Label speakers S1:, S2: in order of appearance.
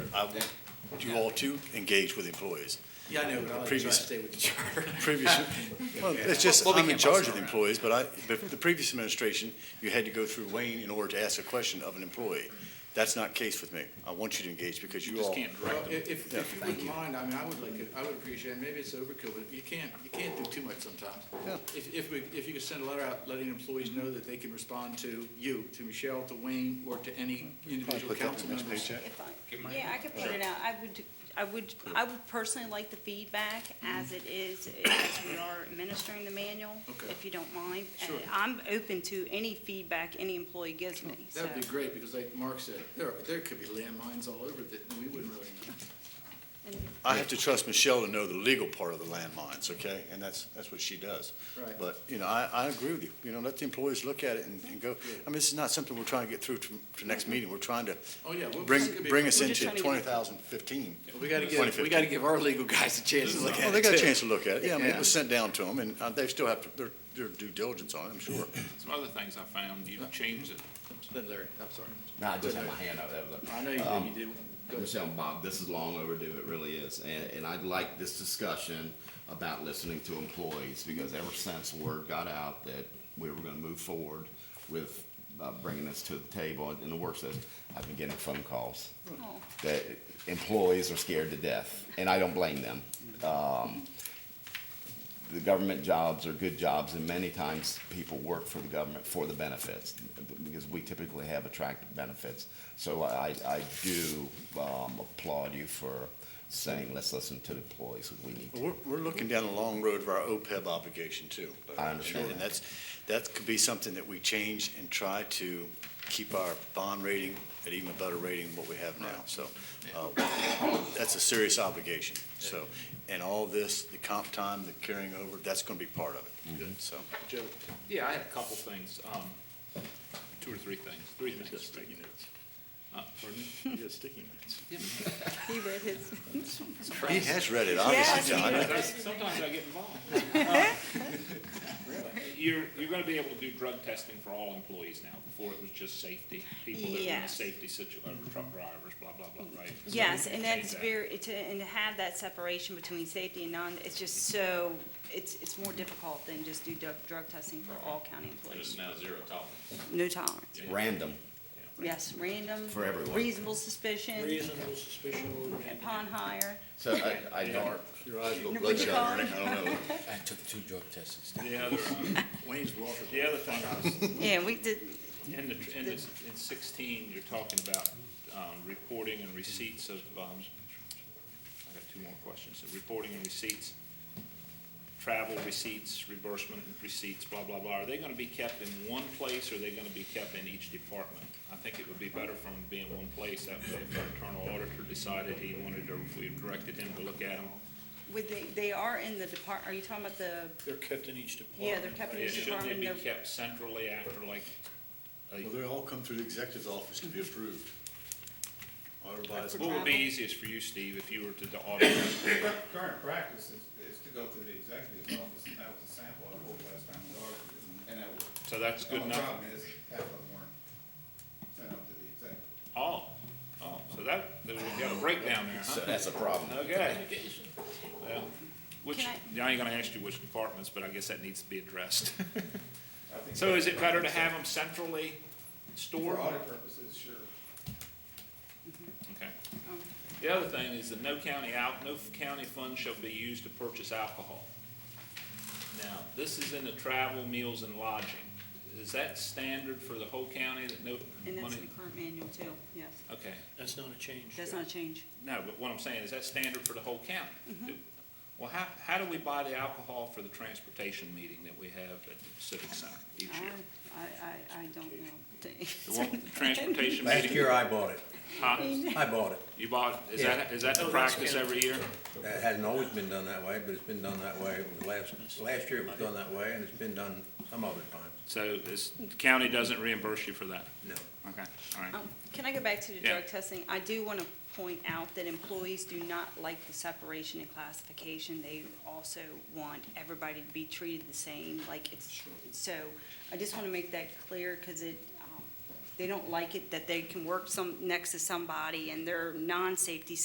S1: I want you all to engage with employees.
S2: Yeah, I know, but I like to try to
S1: Previous-
S2: stay with the charter.
S1: Previous, well, it's just,
S2: Well, we
S1: I'm in
S2: can't
S1: charge
S2: boss
S1: of the
S2: around.
S1: employees, but I, but the previous administration, you had to go through Wayne in order to ask a question of an employee. That's not the case with me. I want you to engage because you all,
S2: Well, if, if if you
S1: Yeah.
S2: wouldn't mind, I mean, I would like, it. I would appreciate, it. maybe it's overkill, but you can't, you can't do too much sometimes.
S1: Yeah.
S2: If, if we, if you could send a letter out letting employees know that they can respond to you, to Michelle, to Wayne, or to any individual
S1: put that
S2: council
S1: in the next
S2: members.
S1: paycheck.
S3: If I, yeah, I could put it out. I would, I would, I would personally like the feedback as it is, as we are administering the manual,
S2: Okay.
S3: if you don't mind.
S2: Sure.
S3: And I'm open to any feedback any employee gives me, so.
S2: That'd be great, because like Mark said, there, are- there could be landmines all over that, and we wouldn't really know.
S3: and-
S1: I have to trust Michelle to know the legal part of the landmines, okay? And that's, that's what she does.
S2: Right.
S1: But, you know, I, I agree with you. You know, let the employees look at it and, and go. I mean, this is not something we're trying to get through to, to next meeting. We're trying to
S2: Oh, yeah. we'll-
S1: bring,
S2: this could be-
S1: bring us
S3: We're
S1: into
S3: just trying to get-
S1: twenty thousand fifteen.
S2: We gotta give, we gotta give our legal guys a chance to look at it.
S1: Well, they got a
S2: too.
S1: chance to look at it. Yeah, I mean,
S2: Yeah.
S1: it was sent down to them, and uh, they still have to- their, their due diligence on it, I'm sure.
S4: Some other things I found, you changed it.
S2: Then Larry, I'm sorry.
S5: No, I just had my hand up. That was Um, it.
S2: I know you
S1: Um,
S2: did, you did. Go ahead.
S5: Michelle, Bob, this is long overdue. It really is. And, and I'd like this discussion about listening to employees because ever since word got out that we were going to move forward with uh, bringing this to the table in the work session, I've been getting phone calls
S3: Oh.
S5: that employees are scared to death, and I don't blame them. Um, the government jobs are good jobs, and many times people work for the government for the benefits, because we typically have attractive benefits. So I, I do um, applaud you for saying, let's listen to the employees, because we need to.
S1: We're, we're looking down a long road of our OPEB obligation too.
S5: I understand
S1: And
S5: that.
S1: that's, that could be something that we change and try to keep our bond rating at even a better rating than what we have now. So, uh, that's a serious obligation. So, and all this, the comp time, the carrying over, that's gonna be part of
S5: Mm-hmm.
S1: it, so.
S2: Joe.
S4: Yeah, I have a couple things, um, two or three things, three things. Uh, pardon me?
S3: He read his.
S1: He has read it, obviously, John.
S4: Sometimes sometimes I get involved. You're, you're gonna be able to do drug testing for all employees now, before it was just safety, people that were in a
S3: Yes.
S4: safety situation, truck drivers, blah, blah, blah, right? So
S3: Yes,
S4: we
S3: and
S4: changed
S3: that's
S4: that.
S3: very, to, and to have that separation between safety and non, it's just so, it's, it's more difficult than just do drug, drug testing for all county
S4: Just
S3: employees.
S4: now zero tolerance.
S3: No tolerance.
S5: Random,
S3: Yes, random.
S5: For everyone.
S3: Reasonable suspicion.
S6: Reasonable suspicion.
S3: Upon hire.
S5: so I, I don't.
S1: Your eyes go
S3: What'd you
S1: bloodshot,
S3: call
S1: Ernie.
S3: it?
S1: I don't know.
S6: I took two drug tests.
S4: The other, um,
S2: Wayne's Walker.
S4: the other thing I was
S3: Yeah, we did,
S4: In the, in the, in sixteen, you're talking about, um, reporting and receipts of, um, I got two more questions, So reporting and receipts, travel receipts, reimbursement receipts, blah, blah, blah, are they gonna be kept in one place, or are they gonna be kept in each department? I think it would be better from being one place, that way if our internal auditor decided he wanted, or if we directed him to look at them,
S3: would they, they are in the depart, are you talking about the,
S6: They're kept in each department.
S3: yeah, they're kept in
S4: yeah,
S3: each
S4: shouldn't they
S3: department?
S4: be
S3: they're-
S4: kept centrally after, like, a-
S1: Well, they all come through the executive's office to be approved. Everybody's.
S4: what would be easiest for you, Steve, if you were to the auditor?
S7: Current practice is, is to go through the executive's office, and that was a sample I pulled last time we audited, and that was.
S4: So that's good
S7: The only
S4: enough.
S7: problem is, half of them weren't sent up to the executive.
S4: Oh, oh, so that, then we got a breakdown there,
S5: So
S4: huh?
S5: that's a problem.
S4: Okay. Well, Which,
S3: Can
S4: I ain't gonna ask you which departments, but I guess that needs to be addressed.
S7: I think
S4: So is it better to
S7: that's-
S4: have them centrally stored?
S7: For audit purposes, sure.
S4: Okay. The other thing is that no county out, no county funds shall be used to purchase alcohol. Now, this is in the travel, meals, and lodging. Is that standard for the whole county that no
S3: And that's in
S4: money?
S3: the current manual too, yes.
S4: Okay.
S6: That's not a change.
S3: That's not a change.
S4: No, but what I'm saying, is that standard for the whole county?
S6: Mm-hmm.
S4: Do- Well, how, how do we buy the alcohol for the transportation meeting that we have at the Civic Center each
S3: I,
S4: year?
S3: I, I, I don't know.
S4: The one with the transportation
S6: Last year
S4: meeting?
S6: I bought it.
S4: Huh?
S6: I bought it.
S4: You bought, is
S6: Yeah.
S4: that, is that the
S6: Oh, that's
S4: practice
S6: good.
S4: every year?
S6: It hasn't always been done that way, but it's been done that way. It was Last, last year it was done that way, and it's been done some other times.
S4: So this, the county doesn't reimburse you for that?
S6: No.
S4: Okay, all right.
S3: Um, Can I go back to the
S4: Yeah.
S3: drug testing? I do want to point out that employees do not like the separation and classification. They also want everybody to be treated the same, like it's, so I just want to make that clear because it, um, they don't like it that they can work some, next to somebody and they're non-safety